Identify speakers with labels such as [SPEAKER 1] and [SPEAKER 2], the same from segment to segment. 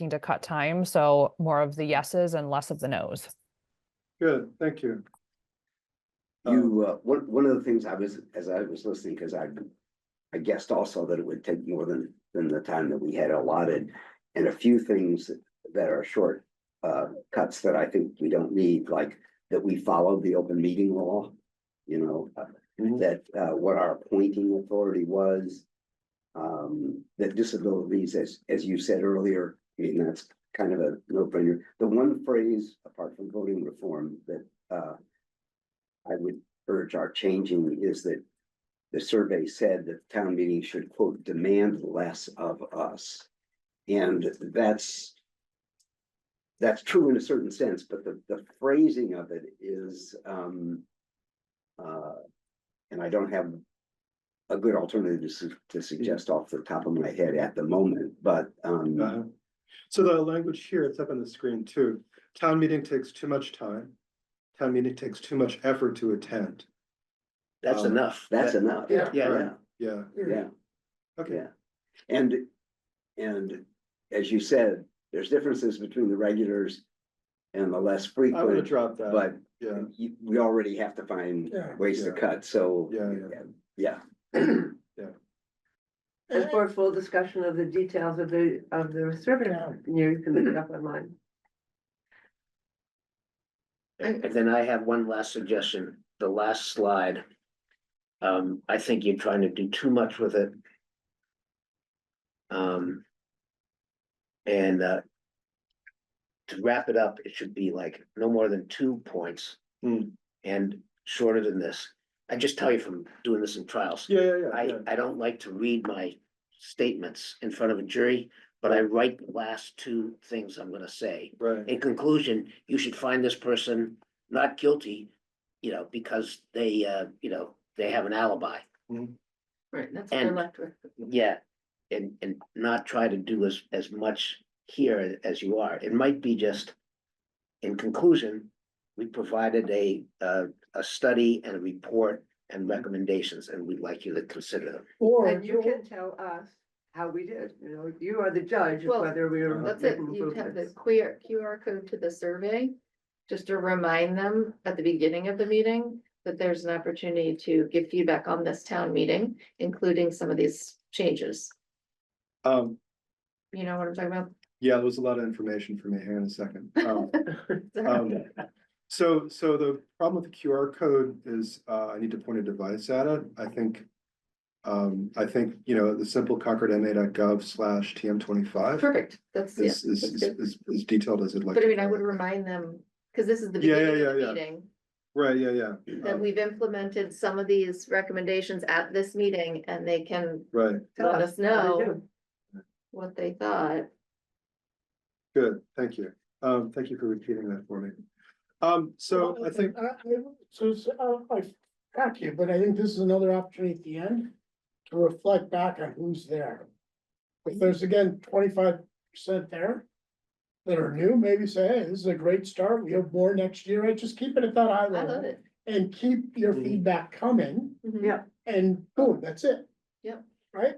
[SPEAKER 1] looking to cut time, so more of the yeses and less of the nos.
[SPEAKER 2] Good, thank you. Uh,
[SPEAKER 3] You, uh, one, one of the things I was, as I was listening, because I, I guessed also that it would take more than, than the time that we had allotted. And a few things that are short, uh, cuts that I think we don't need, like that we followed the open meeting law. You know, uh,
[SPEAKER 2] Mhm.
[SPEAKER 3] that, uh, what our appointing authority was. Um, that disabilities, as, as you said earlier, I mean, that's kind of a no-brainer. The one phrase, apart from voting reform, that, uh, I would urge our changing is that the survey said that town meeting should quote, demand less of us. And that's that's true in a certain sense, but the, the phrasing of it is, um, uh, and I don't have a good alternative to, su- to suggest off the top of my head at the moment, but, um,
[SPEAKER 2] Uh, So the language here, it's up on the screen too. Town meeting takes too much time. Town meeting takes too much effort to attend.
[SPEAKER 4] That's
[SPEAKER 2] Um,
[SPEAKER 4] enough.
[SPEAKER 3] that's
[SPEAKER 4] That-
[SPEAKER 3] enough.
[SPEAKER 4] Yeah.
[SPEAKER 3] Yeah,
[SPEAKER 2] Yeah,
[SPEAKER 3] yeah.
[SPEAKER 2] okay,
[SPEAKER 3] Yeah, and, and as you said, there's differences between the regulars and the less
[SPEAKER 2] I would have
[SPEAKER 3] frequent,
[SPEAKER 2] dropped that.
[SPEAKER 3] but
[SPEAKER 2] Yeah,
[SPEAKER 3] you- we already have to find
[SPEAKER 4] Yeah.
[SPEAKER 3] ways to
[SPEAKER 2] Yeah.
[SPEAKER 3] cut, so.
[SPEAKER 2] Yeah, yeah.
[SPEAKER 3] Yeah,
[SPEAKER 5] There's more full discussion of the details of the, of the survey, you know, you can look it up online.
[SPEAKER 4] And then I have one last suggestion, the last slide. Um, I think you're trying to do too much with it. Um. And, uh. To wrap it up, it should be like no more than two points.
[SPEAKER 2] Hmm.
[SPEAKER 4] And shorter than this. I just tell you from doing this in trials.
[SPEAKER 2] yeah, yeah, yeah,
[SPEAKER 4] I,
[SPEAKER 2] yeah.
[SPEAKER 4] I don't like to read my statements in front of a jury, but I write the last two things I'm gonna say.
[SPEAKER 2] right,
[SPEAKER 4] In conclusion, you should find this person not guilty, you know, because they, uh, you know, they have an alibi.
[SPEAKER 5] Right, that's
[SPEAKER 4] what I And-
[SPEAKER 5] left with.
[SPEAKER 4] Yeah, and, and not try to do as, as much here as you are. It might be just, in conclusion, we provided a, uh, a study and a report and recommendations, and we'd like you to consider them.
[SPEAKER 5] And you can tell us how we did, you know, you are the judge of
[SPEAKER 6] Well,
[SPEAKER 5] whether we were.
[SPEAKER 6] That's it,
[SPEAKER 5] making
[SPEAKER 6] you have the
[SPEAKER 5] improvements.
[SPEAKER 6] QR, QR code to the survey, just to remind them at the beginning of the meeting that there's an opportunity to give feedback on this town meeting, including some of these changes.
[SPEAKER 2] um,
[SPEAKER 6] You know what I'm talking about?
[SPEAKER 2] yeah, there was a lot of information for me here in a second. Um, Um, So, so the problem with the QR code is, uh, I need to point a device at it, I think. Um, I think, you know, the simple Concord slash TM twenty-five
[SPEAKER 6] Perfect, that's, yeah.
[SPEAKER 2] is, is,
[SPEAKER 6] that's
[SPEAKER 2] is,
[SPEAKER 6] good.
[SPEAKER 2] is- is detailed as it like.
[SPEAKER 6] But I mean, I would remind them, because this is the
[SPEAKER 2] Yeah, yeah,
[SPEAKER 6] beginning of
[SPEAKER 2] yeah,
[SPEAKER 6] the
[SPEAKER 2] yeah.
[SPEAKER 6] meeting,
[SPEAKER 2] Right, yeah, yeah.
[SPEAKER 6] that
[SPEAKER 2] Um,
[SPEAKER 6] we've implemented some of these recommendations at this meeting, and they can
[SPEAKER 2] Right,
[SPEAKER 5] Tell
[SPEAKER 6] let us
[SPEAKER 5] how we
[SPEAKER 6] know.
[SPEAKER 5] do.
[SPEAKER 6] what they thought.
[SPEAKER 2] good, thank you, um, thank you for repeating that for me. Um, so I think,
[SPEAKER 7] I, I- so, it's, uh, I back you, but I think this is another opportunity at the end to reflect back on who's there. If there's again twenty-five percent there that are new, maybe say, hey, this is a great start, we have more next year, right? Just keep it at that high
[SPEAKER 6] I love
[SPEAKER 7] level.
[SPEAKER 6] it.
[SPEAKER 7] And keep your
[SPEAKER 2] Mhm.
[SPEAKER 7] feedback coming
[SPEAKER 6] Mhm.
[SPEAKER 5] Yeah.
[SPEAKER 7] and boom, that's it.
[SPEAKER 6] Yep.
[SPEAKER 7] Right?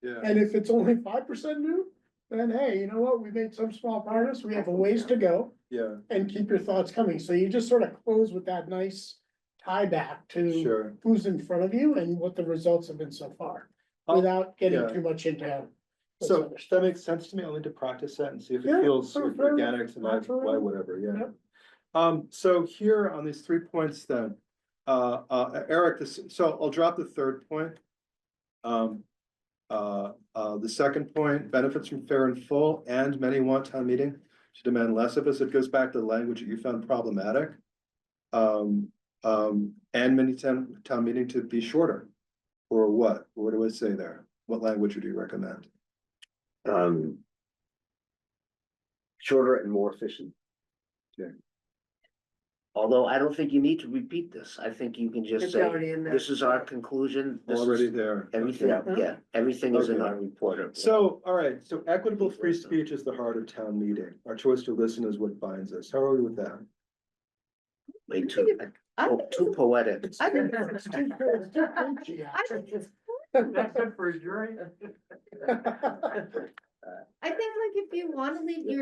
[SPEAKER 2] yeah,
[SPEAKER 7] And if it's only five percent new, then hey, you know what? We made some small progress, we have a ways to go
[SPEAKER 2] yeah,
[SPEAKER 7] and keep your thoughts coming. So you just sort of close with that nice tie back to
[SPEAKER 2] sure,
[SPEAKER 7] who's in front of you and what the results have been so far.
[SPEAKER 2] Oh,
[SPEAKER 7] Without getting
[SPEAKER 2] yeah.
[SPEAKER 7] too much into. what's
[SPEAKER 2] so
[SPEAKER 7] understood.
[SPEAKER 2] that makes sense to me, I'll need to practice that and see if it
[SPEAKER 7] Yeah,
[SPEAKER 2] feels
[SPEAKER 7] sure,
[SPEAKER 2] sort of
[SPEAKER 7] fair enough,
[SPEAKER 2] organic to my,
[SPEAKER 7] absolutely.
[SPEAKER 2] why, whatever, yeah.
[SPEAKER 7] Yep.
[SPEAKER 2] Um, so here on these three points then, uh, uh, Eric, this, so I'll drop the third point. Um, uh, uh, the second point, benefits from fair and full and many want town meeting to demand less of us. It goes back to the language that you found problematic. Um, um, and many town, town meeting to be shorter. Or what? What do I say there? What language would you recommend?
[SPEAKER 3] um. Shorter and more efficient.
[SPEAKER 4] Although I don't think you need to repeat this, I think you can just
[SPEAKER 5] It's
[SPEAKER 4] say,
[SPEAKER 5] already in there.
[SPEAKER 4] this is our conclusion. this is-
[SPEAKER 2] Already there.
[SPEAKER 4] Everything,
[SPEAKER 3] Yeah.
[SPEAKER 4] yeah, everything is in
[SPEAKER 2] Okay.
[SPEAKER 4] our report.
[SPEAKER 2] So, all right, so equitable free speech is the heart of town meeting. Our choice to listen is what binds us. How are we with that?
[SPEAKER 4] Way too,
[SPEAKER 6] I
[SPEAKER 4] oh,
[SPEAKER 6] think
[SPEAKER 4] too poetic.
[SPEAKER 6] I think
[SPEAKER 7] It's too good, it's too preachy,
[SPEAKER 6] I think
[SPEAKER 7] actually.
[SPEAKER 5] Except for jury.
[SPEAKER 6] I think like if you want to leave your